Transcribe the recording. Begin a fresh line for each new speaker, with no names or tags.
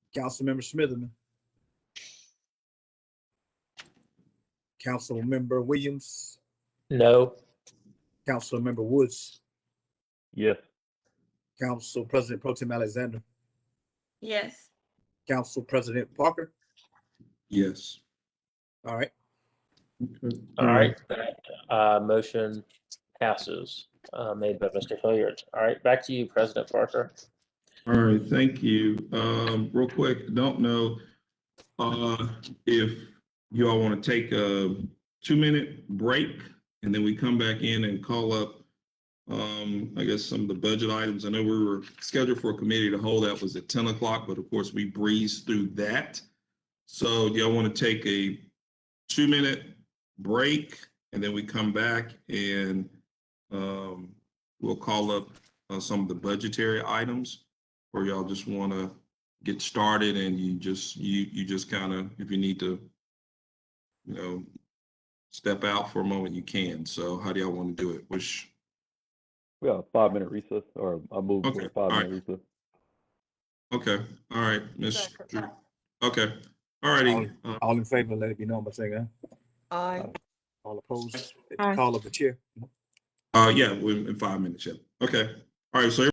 Councilmember Smitherman. Councilmember Williams,
No.
Councilmember Woods,
Yes.
Council President Pro Tem Alexander,
Yes.
Council President Parker.
Yes.
All right,
All right. That uh, motion passes, uh, made by Mr. Hilliard. All right, back to you, President Parker.
All right, thank you. Um, real quick, don't know, uh, if you all want to take a two-minute break and then we come back in and call up, um, I guess some of the budget items. I know we were scheduled for a committee to hold that was at ten o'clock, but of course we breezed through that. So do y'all want to take a two-minute break and then we come back and, um, we'll call up, uh, some of the budgetary items? or y'all just want to get started and you just, you, you just kind of, if you need to, you know, step out for a moment, you can. So how do y'all want to do it? Which,
We got a five minute recess or I move for
Okay,
a
all
five minute recess.
okay, all right, Ms.
Second.
Drew. Okay, all righty. Uh,
all in favor, let it be known by saying aye.
Aye.
All opposed,
Aye.
call of the chair.
Uh, yeah, in in five minutes, yeah. Okay, all right, so